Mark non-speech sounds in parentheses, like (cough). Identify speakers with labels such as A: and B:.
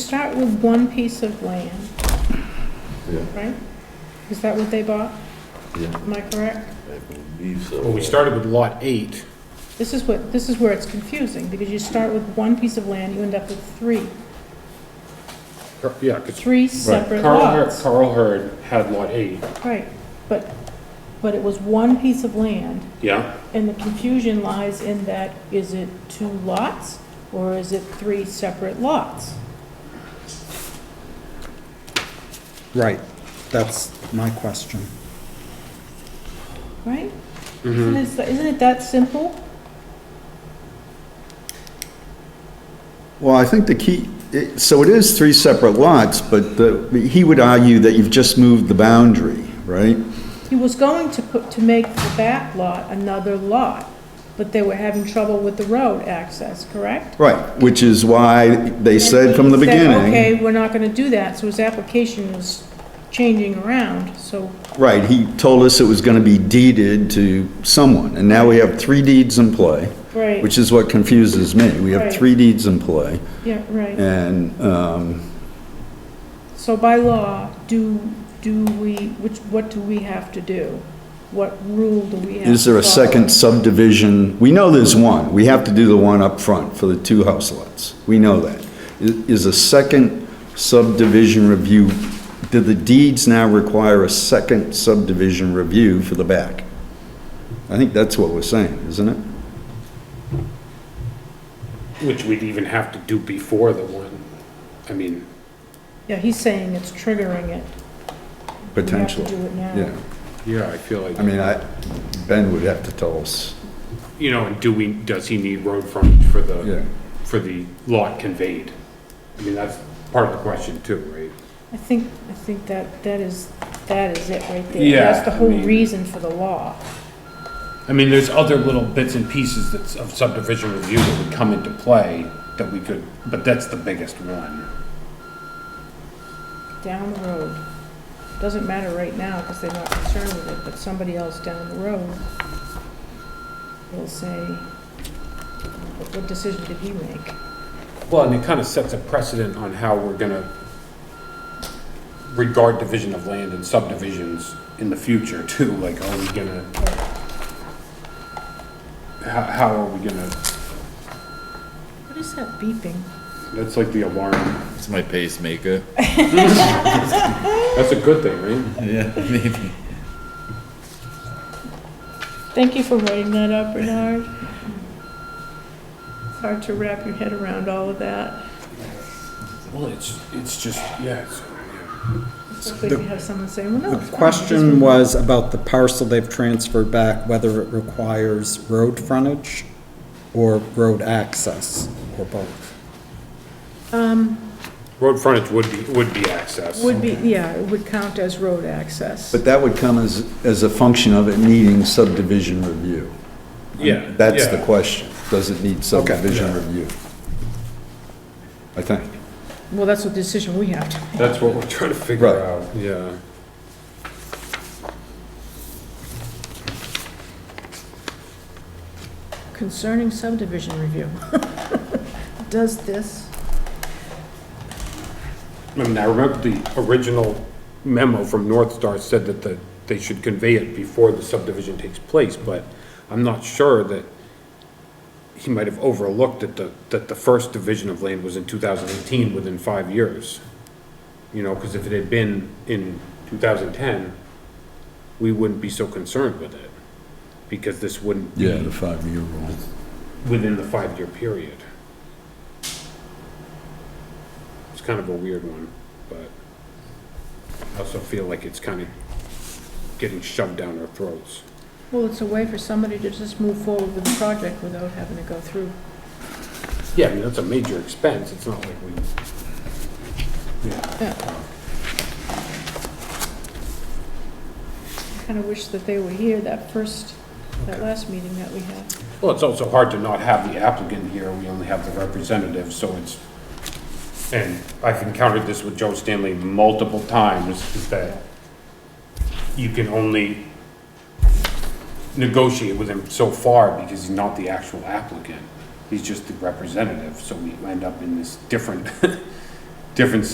A: start with one piece of land,
B: Yeah,
A: right? Is that what they bought?
B: yeah,
A: Am I correct?
B: I believe so.
C: Well, we started with lot eight.
A: This is what, this is where it's confusing, because you start with one piece of land, you end up with three,
C: Cur- Yeah, 'cause-
A: three
C: right,
A: separate
C: Carl Hurd,
A: lots.
C: Carl Hurd had lot eight,
A: Right, but, but it was one piece of land,
C: yeah?
A: and the confusion lies in that, is it two lots, or is it three separate lots?
D: Right, that's my question.
A: Right? Isn't it, isn't it that simple?
E: Well, I think the key, it- so it is three separate lots, but the- he would argue that you've just moved the boundary, right?
A: He was going to put, to make the back lot another lot, but they were having trouble with the road access, correct?
E: Right, which is why they said from the
A: And he said, Okay,
E: beginning.
A: we're not gonna do that, so his application was changing around, so,
E: Right, he told us it was going to be deeded to someone, and now we have three deeds in play,
A: right,
E: which is what confuses me. We
A: Right.
E: have three deeds in play,
A: yeah, right.
E: and, um,
A: So by law, do, do we, which, what do we have to do? What rule do we have?
E: is there a
A: to follow?
E: second subdivision? We know there's one, we have to do the one up front for the two house lots, we know that. I- Is a second subdivision review, do the deeds now require a second subdivision review for the back? I think that's what we're saying, isn't it?
C: Which we'd even have to do before the one, I mean,
A: Yeah, he's saying it's triggering it. We have to
E: Potentially,
A: do it now.
E: yeah.
C: yeah, I feel
E: I
C: like,
E: mean, I, Ben would have to tell us,
C: you know, and do we, does he need road frontage for
E: yeah.
C: the, for the lot conveyed? I mean, that's part of the question too, right?
A: I think, I think that, that is, that is it right there.
C: Yeah,
A: That's the
C: I
A: whole
C: mean-
A: reason for the law.
C: I mean, there's other little bits and pieces that's of subdivision review that would come into play that we could, but that's the biggest one.
A: Down the road. Doesn't matter right now, because they're not concerned with it, but somebody else down the road will say, "What- what decision did he make?
C: Well, and it kind of sets a precedent on how we're gonna regard division of land and subdivisions in the future too, like, are we gonna, how, how are we gonna,
A: What is that beeping?
C: that's like the alarm,
B: It's my pacemaker.
C: that's a good thing, right?
B: Yeah, maybe.
A: Thank you for writing that up, Bernard. It's hard to wrap your head around all of that.
C: Well, it's, it's just, yeah, it's,
A: It's good to have someone say, well, no,
D: The
A: it's fine.
D: question was about the parcel they've transferred back, whether it requires road frontage or road access, or both.
C: road frontage would be, would be access.
A: Would be, yeah, it would count as road access.
E: But that would come as, as a function of it needing subdivision review.
C: Yeah.
E: That's the
C: yeah.
E: question, does it need subdivision review? I think.
A: Well, that's the decision we have to make.
C: That's what we're trying to figure
E: Right.
C: out, yeah.
A: Concerning subdivision review. (laughs) Does this?
C: I mean, I remember the original memo from North Star said that the, they should convey it before the subdivision takes place, but I'm not sure that he might have overlooked that the, that the first division of land was in two thousand eighteen, within five years. You know, because if it had been in two thousand ten, we wouldn't be so concerned with it, because this wouldn't
E: Yeah,
C: be
E: the five-year rule.
C: within the five-year period. It's kind of a weird one, but I also feel like it's kind of getting shoved down our throats.
A: Well, it's a way for somebody to just move forward with the project without having to go through.
C: Yeah, I mean, that's a major expense, it's not like we,
A: Kind of wish that they were here that first, that last meeting that we had.
C: well, it's also hard to not have the applicant here, we only have the representative, so it's, and I've encountered this with Joe Stanley multiple times, is that you can only negotiate with him so far because he's not the actual applicant. He's just the representative, so we end up in this different (laughs) different